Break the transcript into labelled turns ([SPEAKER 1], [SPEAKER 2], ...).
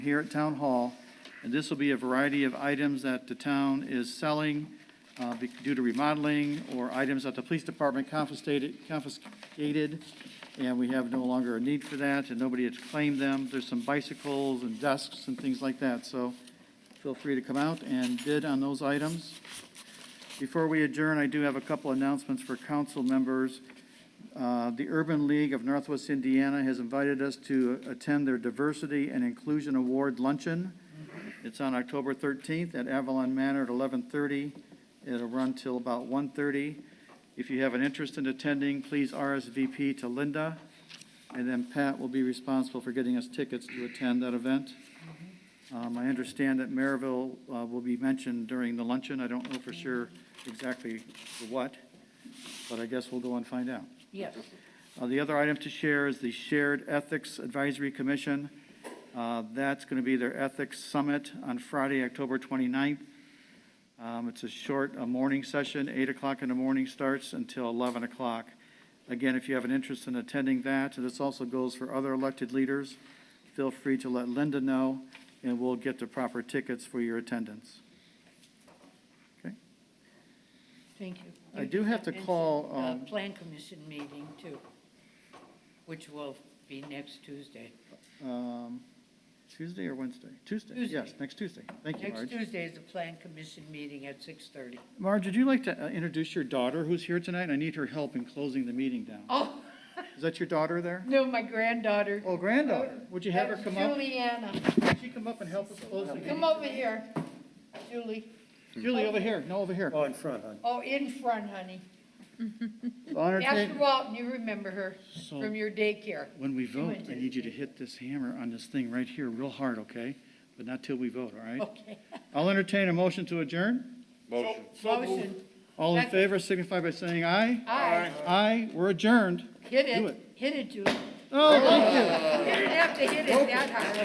[SPEAKER 1] here at Town Hall. And this will be a variety of items that the town is selling uh, be- due to remodeling or items that the police department confiscated, confiscated. And we have no longer a need for that and nobody has claimed them. There's some bicycles and desks and things like that. So feel free to come out and bid on those items. Before we adjourn, I do have a couple announcements for council members. Uh, The Urban League of Northwest Indiana has invited us to attend their Diversity and Inclusion Award Luncheon. It's on October 13th at Avalon Manor at 11:30. It'll run till about 1:30. If you have an interest in attending, please RSVP to Linda, and then Pat will be responsible for getting us tickets to attend that event. Um, I understand that Maryville uh, will be mentioned during the luncheon. I don't know for sure exactly what, but I guess we'll go and find out.
[SPEAKER 2] Yes.
[SPEAKER 1] Uh, The other item to share is the Shared Ethics Advisory Commission. Uh, That's going to be their Ethics Summit on Friday, October 29th. Um, It's a short uh, morning session, 8 o'clock in the morning starts until 11 o'clock. Again, if you have an interest in attending that, and this also goes for other elected leaders, feel free to let Linda know, and we'll get the proper tickets for your attendance. Okay?
[SPEAKER 2] Thank you.
[SPEAKER 1] I do have to
[SPEAKER 2] And,
[SPEAKER 1] call,
[SPEAKER 2] uh,
[SPEAKER 1] um,
[SPEAKER 2] Plan Commission meeting too, which will be next Tuesday.
[SPEAKER 1] Um, Tuesday or Wednesday? Tuesday, yes,
[SPEAKER 2] Tuesday.
[SPEAKER 1] next Tuesday. Thank you,
[SPEAKER 2] Next
[SPEAKER 1] Marge.
[SPEAKER 2] Tuesday is the Plan Commission meeting at 6:30.
[SPEAKER 1] Marge, would you like to uh, introduce your daughter who's here tonight? I need her help in closing the meeting down.
[SPEAKER 2] Oh,
[SPEAKER 1] Is that your daughter there?
[SPEAKER 2] no, my granddaughter.
[SPEAKER 1] Oh, granddaughter. Would you have her
[SPEAKER 2] That's
[SPEAKER 1] come up?
[SPEAKER 2] Juliana,
[SPEAKER 1] Would she come up and help us close the meeting?
[SPEAKER 2] come over here, Julie.
[SPEAKER 1] Julie, over here, no, over here.
[SPEAKER 3] Oh, in front, huh?
[SPEAKER 2] Oh, in front, honey.
[SPEAKER 1] On her
[SPEAKER 2] After
[SPEAKER 1] table.
[SPEAKER 2] Walton, you remember her
[SPEAKER 1] So-
[SPEAKER 2] from your daycare.
[SPEAKER 1] When we
[SPEAKER 2] She
[SPEAKER 1] vote,
[SPEAKER 2] went
[SPEAKER 1] I
[SPEAKER 2] to-
[SPEAKER 1] need you to hit this hammer on this thing right here real hard, okay? But not till we vote, all right?
[SPEAKER 2] Okay.
[SPEAKER 1] Oh. I'll entertain a motion to adjourn.
[SPEAKER 4] Motion.
[SPEAKER 2] Motion.
[SPEAKER 1] All in
[SPEAKER 2] Second.
[SPEAKER 1] favor signify by saying aye.
[SPEAKER 2] Aye.
[SPEAKER 1] Aye, we're adjourned.
[SPEAKER 2] Hit
[SPEAKER 1] Do
[SPEAKER 2] it,
[SPEAKER 1] it.
[SPEAKER 2] hit it, Julie.
[SPEAKER 1] Oh,
[SPEAKER 2] You didn't have to hit it that hard.